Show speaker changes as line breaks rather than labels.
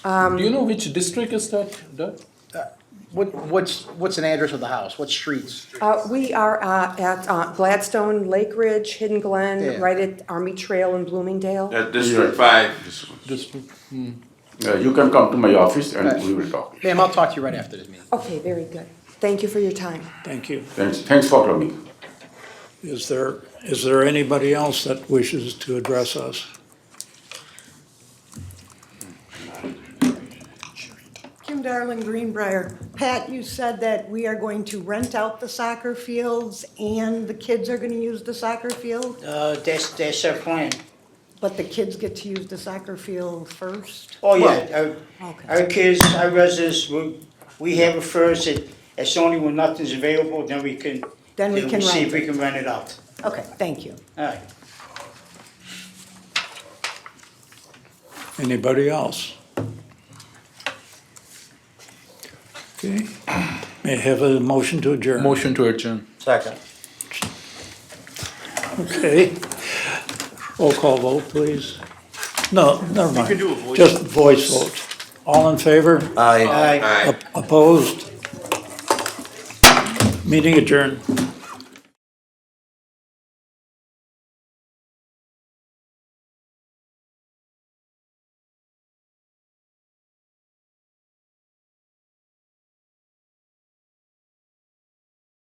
Do you know which district is that, Doug?
What, what's, what's an address of the house? What streets?
Uh, We are uh, at uh, Gladstone, Lake Ridge, Hidden
Yeah.
Glen, right at Army Trail in Bloomingdale.
That's District Five.
District.
Uh, you can come to my office and
Right.
we will talk.
Ma'am, I'll talk to you right after this meeting.
Okay, very good. Thank you for your time.
Thank you.
Thanks, thanks for coming.
Is there, is there anybody else that wishes to address us?
Kim Darling, Greenbrier. Pat, you said that we are going to rent out the soccer fields and the kids are gonna use the soccer field,
Uh, that's, that's our plan.
but the kids get to use the soccer field first?
Oh, yeah, our,
Okay.
our kids, our residents, we, we have it first, and it's only when nothing's available, then we can.
Then we can
See
rent
if we can rent it out.
Okay, thank you.
All right.
Anybody else? Okay, may I have a motion to adjourn?
Motion to adjourn.
Second.
Okay. Roll call vote, please. No, never mind. Just voice vote. All in favor?
All right.
Op- Opposed? Meeting adjourned.